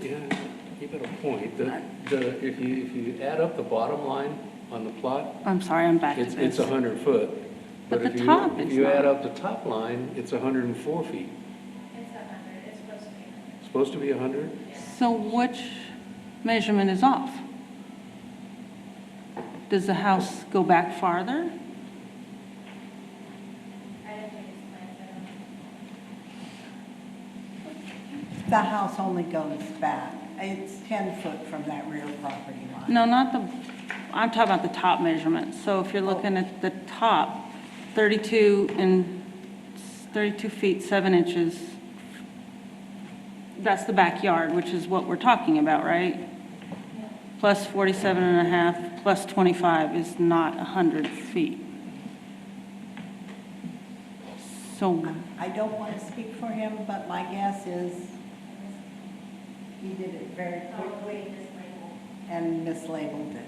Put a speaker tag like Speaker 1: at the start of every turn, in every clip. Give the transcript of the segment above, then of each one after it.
Speaker 1: Yeah, you got a point. The, the, if you, if you add up the bottom line on the plot,
Speaker 2: I'm sorry, I'm back to
Speaker 1: it's, it's a
Speaker 2: this.
Speaker 1: hundred foot.
Speaker 2: But the
Speaker 1: if you-
Speaker 2: top
Speaker 1: If
Speaker 2: is
Speaker 1: you add
Speaker 2: not.
Speaker 1: up the top line, it's hundred and four feet.
Speaker 3: It's a hundred, it's supposed to be a hundred.
Speaker 1: Supposed to be hundred?
Speaker 2: So which measurement is off? Does the house go back farther?
Speaker 3: I don't think it's planned, I don't know.
Speaker 4: The house only goes back, it's 10 foot from that rear property line.
Speaker 2: No, not the, I'm talking about the top measurement. So if you're looking at the top, 32 and, 32 feet, 7 inches, that's the backyard, which is what we're talking about, right? Plus 47 and a half, plus 25 is not 100 feet. So
Speaker 4: I don't want to speak for him, but my guess is he did it very quickly and mislabeled it.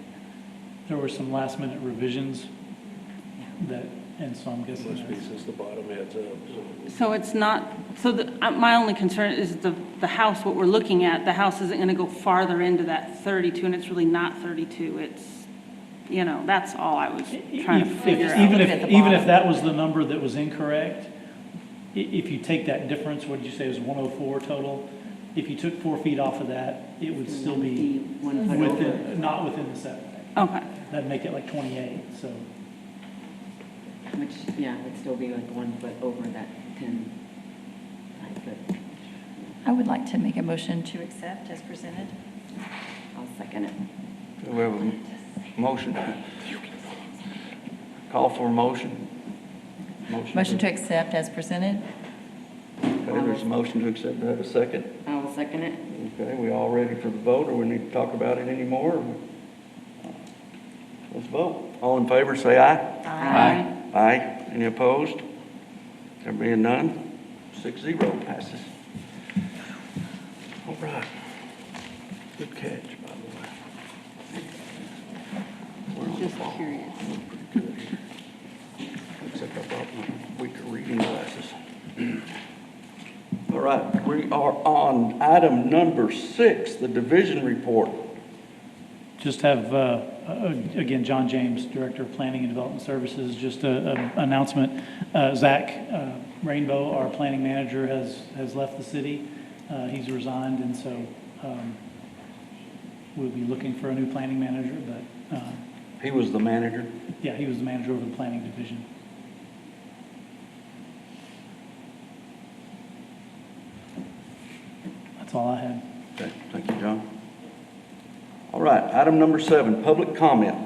Speaker 5: There were some last minute revisions that, and so I'm guessing
Speaker 1: Must be
Speaker 5: that's,
Speaker 1: since the bottom adds up, so.
Speaker 2: So it's not, so the, uh, my only concern is the, the house, what we're looking at, the house isn't gonna go farther into that thirty-two, and it's really not thirty-two, it's, you know, that's all I was trying to
Speaker 5: If-
Speaker 2: figure
Speaker 5: if-
Speaker 2: out.
Speaker 5: E-, Even
Speaker 4: At
Speaker 5: if,
Speaker 4: the
Speaker 5: even if
Speaker 4: bottom.
Speaker 5: that was the number that was incorrect, i- if you take that difference, what did you say, it was 104 total? If you took four feet off of that, it would still be within, not within the setback.
Speaker 2: Okay,
Speaker 5: That'd make it like 28, so.
Speaker 6: Which, yeah, would still be like one foot over that 10, nine foot.
Speaker 7: I would like to make a motion to accept as presented.
Speaker 6: I'll second it.
Speaker 8: We have a motion. Call for a motion.
Speaker 7: Motion to accept as presented?
Speaker 8: Okay, there's a motion to accept, Do I have a second.
Speaker 6: I will second it.
Speaker 8: Okay, we all ready for the vote, or we need to talk about it anymore? Let's vote. All in favor, say aye.
Speaker 2: Aye.
Speaker 8: Aye. Any opposed? There being none, six zero passes. All right. Good catch, by the way. We're on the
Speaker 2: just
Speaker 8: ball.
Speaker 2: curious.
Speaker 8: Except I brought my weaker reading glasses. All right, we are on item number six, the division report.
Speaker 5: Just have, uh, uh, again, John James, Director of Planning and Development Services, just an announcement. Uh, Zach uh, Rainbow, our planning manager, has, has left the city. Uh, He's resigned, and so um, we'll be looking for a new planning manager, but, uh,
Speaker 8: He was the manager.
Speaker 5: yeah, he was the manager over the planning division. That's all I had.
Speaker 8: Okay, Thank you, John. All right, item number seven, public comment.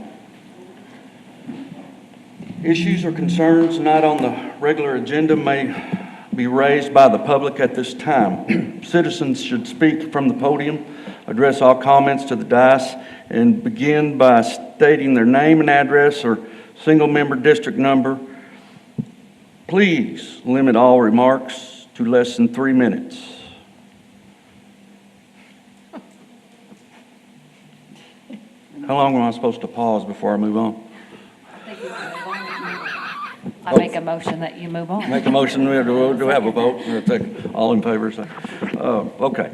Speaker 8: Issues or concerns not on the regular agenda may be raised by the public at this time. Citizens should speak from the podium, address all comments to the dais, and begin by stating their name and address or single-member district number. Please limit all remarks to less than three minutes. How long am I supposed to pause before I move on?
Speaker 7: I make a motion that you move on.
Speaker 8: Make a motion, we have to- do we have a vote? We'll take- All in favor, say, uh, okay.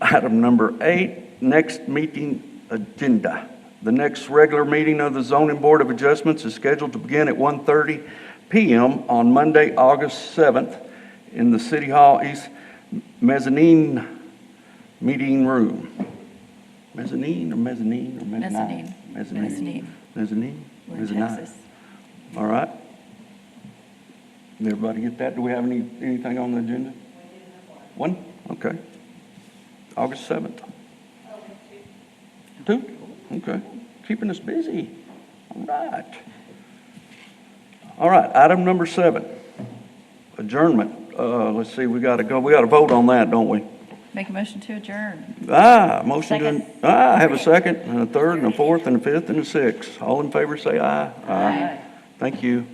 Speaker 8: Item number eight, next meeting agenda. The next regular meeting of the Zoning Board of Adjustments is scheduled to begin at 1:30 PM on Monday, August 7th, in the City Hall East Mezzanine Meeting Room. Mezzanine or mezzanine or mezzanine?
Speaker 7: Mezzanine.
Speaker 8: Mezzanine. Mezzanine?
Speaker 7: We're in
Speaker 8: Mezzanine.
Speaker 7: Texas.
Speaker 8: All right. Did everybody get that? Do we have any, anything on the agenda? One? Okay. August 7th. Two? Okay. Keeping us busy. All right. All right, item number seven, adjournment. Uh, let's see, we gotta go, we gotta vote on that, don't we?
Speaker 7: Make a motion to adjourn.
Speaker 8: Ah, motion to,
Speaker 7: Second.
Speaker 8: ah, I have a second, and a third, and a fourth, and a fifth, and a sixth. All in favor, say aye. Aye. Thank you.